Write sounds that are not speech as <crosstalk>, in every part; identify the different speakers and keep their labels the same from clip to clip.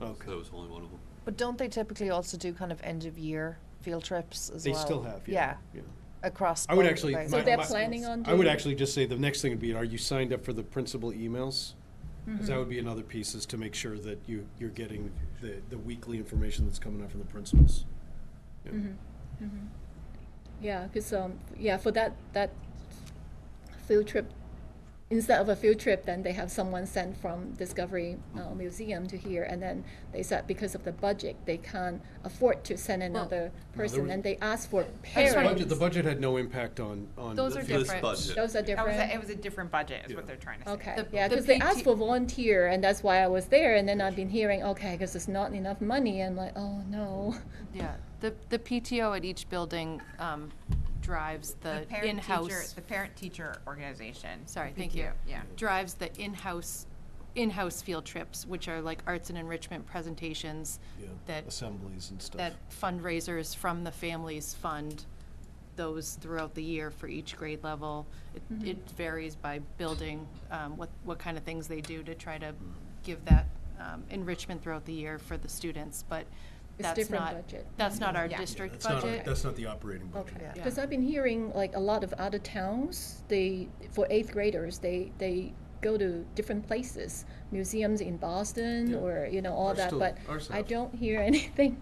Speaker 1: Okay.
Speaker 2: That was only one of them.
Speaker 3: But don't they typically also do kind of end of year field trips as
Speaker 1: They
Speaker 3: well?
Speaker 1: still have, yeah. yeah.
Speaker 3: across.
Speaker 1: I would
Speaker 3: both
Speaker 1: actually.
Speaker 3: things.
Speaker 4: So
Speaker 1: my-
Speaker 4: they're
Speaker 1: my-
Speaker 4: planning on
Speaker 1: I would
Speaker 4: doing-
Speaker 1: actually just say the next thing would be, are you signed up for the principal emails? Because that would be another piece is to make sure that you, you're getting the, the weekly information that's coming out from the principals. Yeah.
Speaker 4: Yeah, because um, yeah, for that that field trip, instead of a field trip, then they have someone sent from Discovery uh, Museum to here, and then they said because of the budget, they can't afford to send another person,
Speaker 1: was-
Speaker 4: and they ask for
Speaker 1: The
Speaker 4: parents.
Speaker 1: budget, the budget had no impact on, on.
Speaker 5: Those are
Speaker 1: the-
Speaker 5: different.
Speaker 2: This budget.
Speaker 4: Those are
Speaker 5: That was
Speaker 4: different.
Speaker 5: a, it was a different budget, is what they're trying to say.
Speaker 4: Okay,
Speaker 5: The-
Speaker 4: yeah,
Speaker 5: the
Speaker 4: because they
Speaker 5: PT
Speaker 4: asked for volunteer, and that's why I was there, and then I've been hearing, okay, because there's not enough money, and like, oh, no.
Speaker 6: Yeah, the, the PTO at each building um, drives the
Speaker 5: The parent teacher,
Speaker 6: Uh, in-house,
Speaker 5: the parent teacher organization.
Speaker 6: sorry, thank you.
Speaker 5: PTO, Yeah.
Speaker 6: Drives the in-house, in-house field trips, which are like arts and enrichment presentations
Speaker 1: yeah,
Speaker 6: that,
Speaker 1: Assemblies and stuff.
Speaker 6: that fundraisers from the families fund those throughout the year for each grade level. It-
Speaker 5: Mm-hmm.
Speaker 6: It varies by building, um, what, what kind of things they do to try to
Speaker 1: Mm-hmm.
Speaker 6: give that um, enrichment throughout the year for the students, but
Speaker 4: It's
Speaker 6: that's
Speaker 4: different
Speaker 6: not,
Speaker 4: budget.
Speaker 6: that's not our
Speaker 5: Yeah.
Speaker 1: Yeah,
Speaker 6: district
Speaker 1: that's not-
Speaker 6: budget.
Speaker 1: That's not the operating budget.
Speaker 4: Okay,
Speaker 6: Yeah.
Speaker 4: because I've been hearing like a lot of other towns, they, for eighth graders, they, they go to different places, museums in Boston
Speaker 1: Yeah.
Speaker 4: or, you know, all
Speaker 1: Or
Speaker 4: that,
Speaker 1: still-
Speaker 4: but
Speaker 1: or
Speaker 4: I
Speaker 1: South.
Speaker 4: don't hear <laughs> anything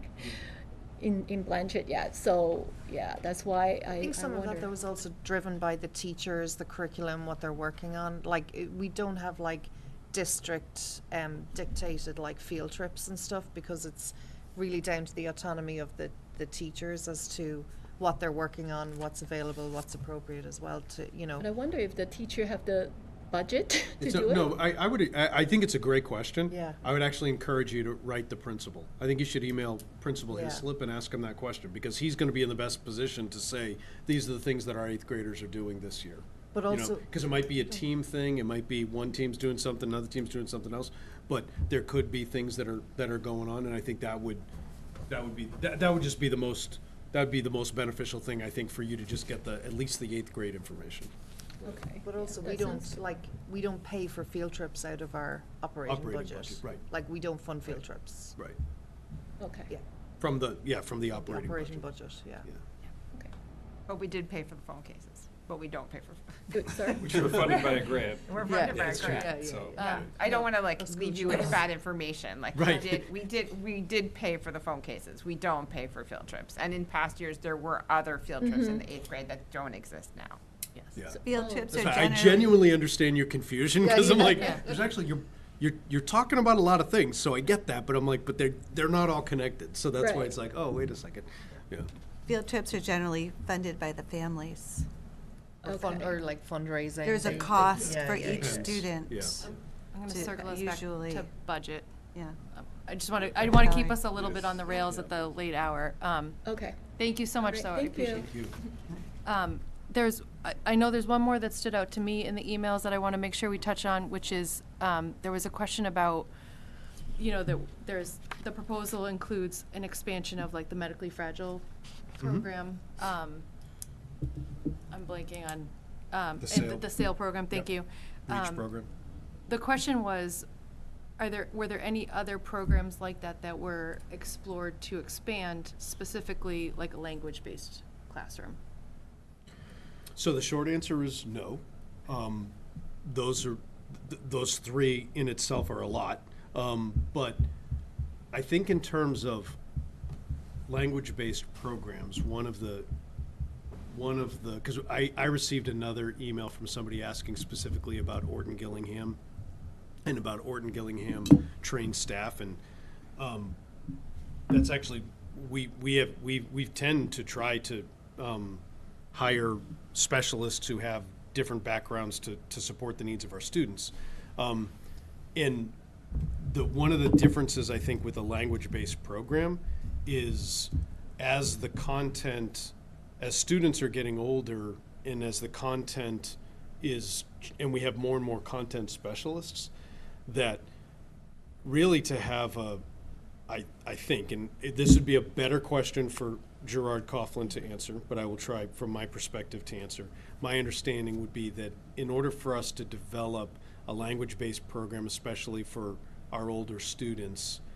Speaker 4: in, in Blanchard yet, so, yeah, that's why I, I
Speaker 3: I think some of that though
Speaker 4: wonder.
Speaker 3: was also driven by the teachers, the curriculum, what they're working on. Like i- we don't have like district um, dictated like field trips and stuff because it's really down to the autonomy of the the teachers as to what they're working on, what's available, what's appropriate as well to you know.
Speaker 4: But I wonder if the teacher have the budget <laughs> to
Speaker 1: It's
Speaker 4: do
Speaker 1: a-
Speaker 4: it?
Speaker 1: No, I, I would, I, I think it's a great question.
Speaker 3: Yeah.
Speaker 1: I would actually encourage you to write the principal. I think you should email Principal
Speaker 3: Yeah.
Speaker 1: Hislop and ask him that question, because he's gonna be in the best position to say, these are the things that our eighth graders are doing this year.
Speaker 3: But also-
Speaker 1: Because it might be a team thing, it might be one team's doing something, another team's doing something else, but there could be things that are, that are going on, and I think that would, that would be, that, that would just be the most, that'd be the most beneficial thing, I think, for you to just get the, at least the eighth grade information.
Speaker 4: Okay.
Speaker 3: But
Speaker 4: yeah,
Speaker 3: also, we
Speaker 4: that
Speaker 3: don't,
Speaker 4: sounds-
Speaker 3: like, we don't pay for field trips out of our operating
Speaker 1: Operating
Speaker 3: budget.
Speaker 1: budget, right.
Speaker 3: Like, we don't fund field trips.
Speaker 1: Right.
Speaker 4: Okay,
Speaker 3: Yeah,
Speaker 1: From the, yeah, from the
Speaker 3: the
Speaker 1: operating budget.
Speaker 3: operating budget, yeah.
Speaker 1: Yeah.
Speaker 4: okay.
Speaker 5: But we did pay for the phone cases, but we don't pay for, <laughs>
Speaker 3: <laughs>
Speaker 4: Good, sorry.
Speaker 7: Which were funded by a grant.
Speaker 5: we're funded by a
Speaker 7: That's true.
Speaker 5: grant.
Speaker 7: So,
Speaker 6: Uh,
Speaker 5: I don't wanna like
Speaker 3: That's
Speaker 5: leave
Speaker 3: good.
Speaker 5: you with bad information, like we
Speaker 1: Right.
Speaker 5: did, we did, we did pay for the phone cases, we don't pay for field trips. And in past years, there were other field
Speaker 6: Mm-hmm.
Speaker 5: trips in the eighth grade that don't exist now.
Speaker 1: yeah.
Speaker 8: Field
Speaker 4: Oh,
Speaker 3: Oh.
Speaker 8: trips are
Speaker 1: That's fine. I
Speaker 8: generally,
Speaker 1: genuinely understand your confusion because
Speaker 3: you
Speaker 1: I'm
Speaker 3: know,
Speaker 1: like,
Speaker 3: yeah.
Speaker 1: there's actually you're, you're you're talking about a lot of things, so I get that, but I'm like, but they're they're not all connected, so that's why
Speaker 4: Right.
Speaker 1: it's like, oh wait a second, yeah,
Speaker 8: field trips are generally funded by the families.
Speaker 3: Or fund,
Speaker 4: Okay.
Speaker 3: or like fundraising.
Speaker 8: There's a
Speaker 3: thing.
Speaker 8: cost
Speaker 3: Yeah,
Speaker 8: for
Speaker 3: yeah, Um,
Speaker 8: each
Speaker 3: yeah.
Speaker 8: student.
Speaker 1: Yeah.
Speaker 6: I'm going to
Speaker 8: to-
Speaker 6: circle us back
Speaker 8: usually-
Speaker 6: to budget.
Speaker 8: Yeah.
Speaker 6: Um, I just want to, I want to keep
Speaker 8: Sorry.
Speaker 6: us a little bit on the rails at the late hour. Um,
Speaker 4: Okay.
Speaker 6: Thank you so much,
Speaker 4: Great,
Speaker 6: though. I
Speaker 4: thank
Speaker 6: appreciate
Speaker 4: you.
Speaker 6: it.
Speaker 1: Thank you.
Speaker 6: Um, There's, I- I know there's one more that stood out to me in the emails that I want to make sure we touch on, which is, um, there was a question about, you know, that there's, the proposal includes an expansion of like the medically fragile
Speaker 1: Mm-hmm.
Speaker 6: program. Um, I'm blanking on, um,
Speaker 1: The
Speaker 6: and
Speaker 1: sale.
Speaker 6: the sale program, thank you.
Speaker 1: Yep. Reach
Speaker 6: Um,
Speaker 1: program.
Speaker 6: the question was, are there, were there any other programs like that that were explored to expand specifically like a language-based classroom?
Speaker 1: So the short answer is no. Um, those are th- those three in itself are a lot, um, but I think in terms of language-based programs, one of the one of the because I, I received another email from somebody asking specifically about Orton Gillingham and about Orton Gillingham trained staff and um, that's actually we we have we we tend to try to um, hire specialists who have different backgrounds to to support the needs of our students. Um, and the one of the differences I think with a language-based program is as the content as students are getting older and as the content is and we have more and more content specialists that really to have a, I, I think, and it- this would be a better question for Gerard Coughlin to answer, but I will try from my perspective to answer. My understanding would be that in order for us to develop a language-based program, especially for our older students,